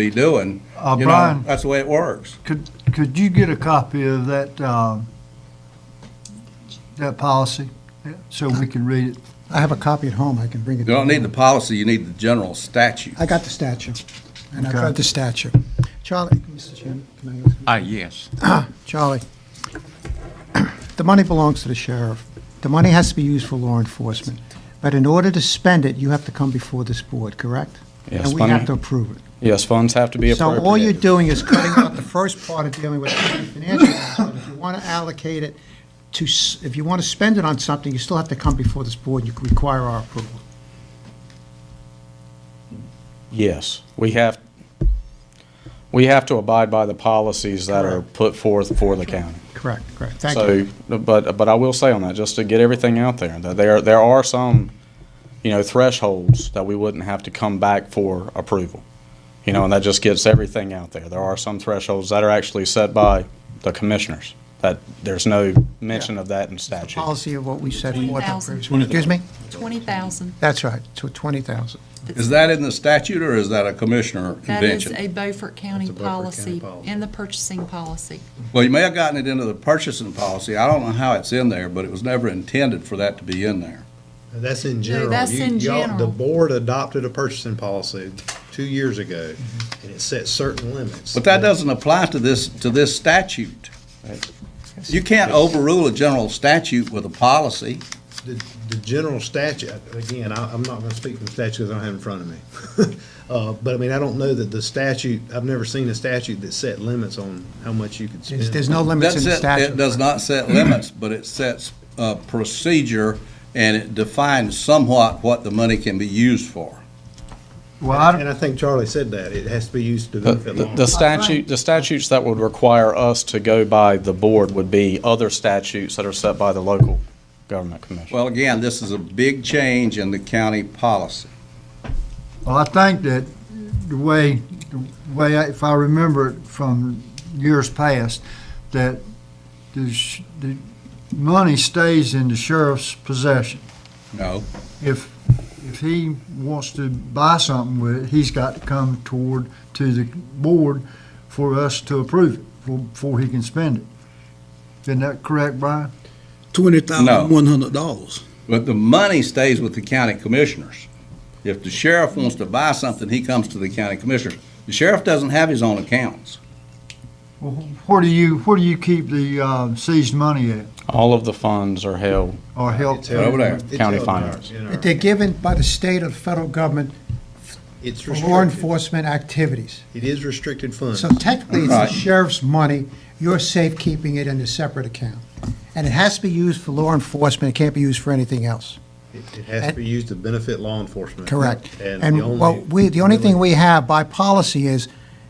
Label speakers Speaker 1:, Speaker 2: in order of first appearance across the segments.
Speaker 1: be doing.
Speaker 2: Uh,
Speaker 1: You know,
Speaker 2: Brian,
Speaker 1: That's the way it works.
Speaker 2: could, could you get a copy of that, um, that policy, yeah, so we can read it?
Speaker 3: I have a copy at home, I can bring it.
Speaker 1: You don't need the policy, you need the general statute.
Speaker 3: I got the statute, and I've
Speaker 2: Okay.
Speaker 3: read the statute. Charlie, Mr. Chairman, can I ask?
Speaker 4: Ah, yes.
Speaker 3: Charlie, the money belongs to the sheriff. The money has to be used for law enforcement, but in order to spend it, you have to come before this board, correct?
Speaker 5: Yes,
Speaker 3: And we
Speaker 5: money-
Speaker 3: have to approve it.
Speaker 5: Yes, funds have to be
Speaker 3: So all you're
Speaker 5: appropriated.
Speaker 3: doing is cutting out the first part of dealing with the financial aspect. If you want to allocate it to, s- if you want to spend it on something, you still have to come before this board, you can require our approval.
Speaker 5: Yes, we have, we have to abide by the policies that are put forth for the county.
Speaker 3: Correct, correct, thank you.
Speaker 5: So, but, but I will say on that, just to get everything out there, that there, there are some, you know, thresholds that we wouldn't have to come back for approval. You know, and that just gets everything out there. There are some thresholds that are actually set by the commissioners, that there's no mention of that in statute.
Speaker 3: policy of what we said. forth in
Speaker 6: 20,000.
Speaker 3: previous- Excuse me?
Speaker 6: 20,000.
Speaker 3: That's right, to 20,000.
Speaker 1: Is that in the statute or is that a commissioner
Speaker 6: That is
Speaker 1: convention?
Speaker 6: a Beaufort County
Speaker 1: That's a Beaufort County
Speaker 6: policy
Speaker 1: policy.
Speaker 6: in the purchasing policy.
Speaker 1: Well, you may have gotten it into the purchasing policy. I don't know how it's in there, but it was never intended for that to be in there.
Speaker 7: That's in general.
Speaker 6: that's
Speaker 7: You-
Speaker 6: in
Speaker 7: y'all- The
Speaker 6: general.
Speaker 7: board adopted a purchasing policy two years ago,
Speaker 6: Mm-hmm.
Speaker 7: and it set certain limits.
Speaker 1: But that doesn't apply to this, to this statute. You can't overrule a general statute with a policy.
Speaker 7: The, the general statute, again, I, I'm not gonna speak from statute because I don't have it in front of me. Uh, but I mean, I don't know that the statute, I've never seen a statute that set limits on how much you could spend.
Speaker 3: There's there's no limits in
Speaker 1: That's
Speaker 3: the
Speaker 1: it,
Speaker 3: statute.
Speaker 1: it does not set limits, but it sets a procedure and it defines somewhat what the money can be used for.
Speaker 2: Well, I don't-
Speaker 7: And I think Charlie said that, it has to be used to
Speaker 5: The-
Speaker 7: benefit
Speaker 5: The
Speaker 7: law.
Speaker 5: the statute, the statutes that would require us to go by the board would be other statutes that are set by the local government commission.
Speaker 1: Well, again, this is a big change in the county policy.
Speaker 2: well, I think that the way, the way, I- if I remember it from years past, that the, sh- the money stays in the sheriff's possession.
Speaker 1: No,
Speaker 2: if, if he wants to buy something with it, he's got to come toward, to the board for us to approve it, for- before he can spend it. Isn't that correct, Brian?
Speaker 8: twenty thousand one hundred dollars.
Speaker 1: but the money stays with the county commissioners. If the sheriff wants to buy something, he comes to the county commissioners. The sheriff doesn't have his own accounts.
Speaker 2: Well, Where do you, where do you keep the uh, seized money at,
Speaker 5: All of the funds are held,
Speaker 2: or help?
Speaker 7: It's held-
Speaker 1: Over there.
Speaker 7: it's
Speaker 5: County
Speaker 7: held in our-
Speaker 5: finance.
Speaker 7: in our-
Speaker 3: But They're given by the state or the federal government
Speaker 7: It's
Speaker 3: for law
Speaker 7: restricted,
Speaker 3: enforcement activities.
Speaker 7: it is restricted funds.
Speaker 3: So technically, it's the
Speaker 1: Right.
Speaker 3: sheriff's money, you're safekeeping it in a separate account. And it has to be used for law enforcement, it can't be used for anything else.
Speaker 7: It it has to be used to benefit law enforcement.
Speaker 3: Correct.
Speaker 7: And the
Speaker 3: And what
Speaker 7: only-
Speaker 3: we, the only thing we have by policy is,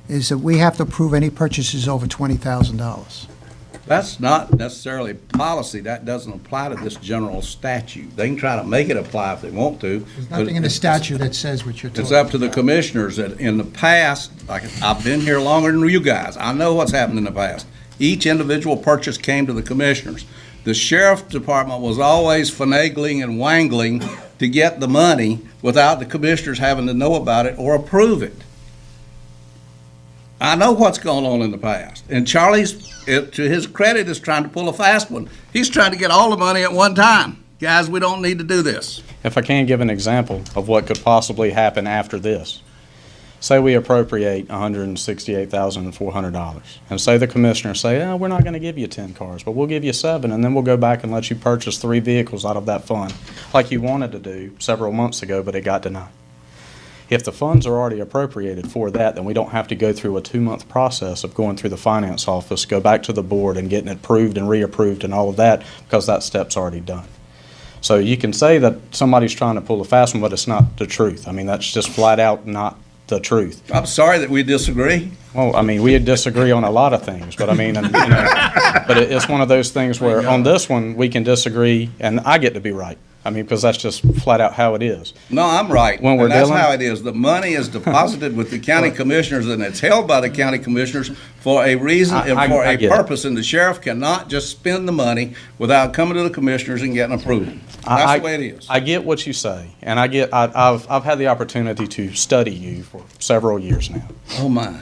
Speaker 3: is that we have to approve any purchases over twenty thousand dollars.
Speaker 1: That's not necessarily policy, that doesn't apply to this general statute. They can try to make it apply if they want to.
Speaker 3: There's nothing in the statute that says what you're talking about.
Speaker 1: It's up to the commissioners that in the past, like, I've been here longer than you guys. I know what's happened in the past. Each individual purchase came to the commissioners. The sheriff department was always finagling and wangling to get the money without the commissioners having to know about it or approve it. I know what's going on in the past. And Charlie's, it- to his credit, is trying to pull a fast one. He's trying to get all the money at one time. Guys, we don't need to do this.
Speaker 5: if I can give an example of what could possibly happen after this. Say we appropriate $168,400, and say the commissioners say, oh, we're not going to give you 10 cars, but we'll give you seven, and then we'll go back and let you purchase three vehicles out of that fund, like you wanted to do several months ago, but it got denied. If the funds are already appropriated for that, then we don't have to go through a two-month process of going through the finance office, go back to the board and getting it approved and reapproved and all of that, because that step's already done. So you can say that somebody's trying to pull a fast one, but it's not the truth. I mean, that's just flat out not the truth.
Speaker 1: I'm sorry that we disagree.
Speaker 5: Well, I mean, we disagree on a lot of things, but I mean, and, you know, but it, it's one of those things where on this one, we can disagree and I get to be right. I mean, because that's just flat out how it is.
Speaker 1: No, I'm right.
Speaker 5: When we're
Speaker 1: And that's
Speaker 5: dealing-
Speaker 1: how it is. The money is deposited with the county commissioners and it's held by the county commissioners for a reason
Speaker 5: I- I-
Speaker 1: and for
Speaker 5: I
Speaker 1: a
Speaker 5: get it.
Speaker 1: purpose. And the sheriff cannot just spend the money without coming to the commissioners and getting approval.
Speaker 5: I-
Speaker 1: That's
Speaker 5: I-
Speaker 1: the way it is.
Speaker 5: I get what you say, and I get, I, I've, I've had the opportunity to study you for several years now.
Speaker 1: Oh, my.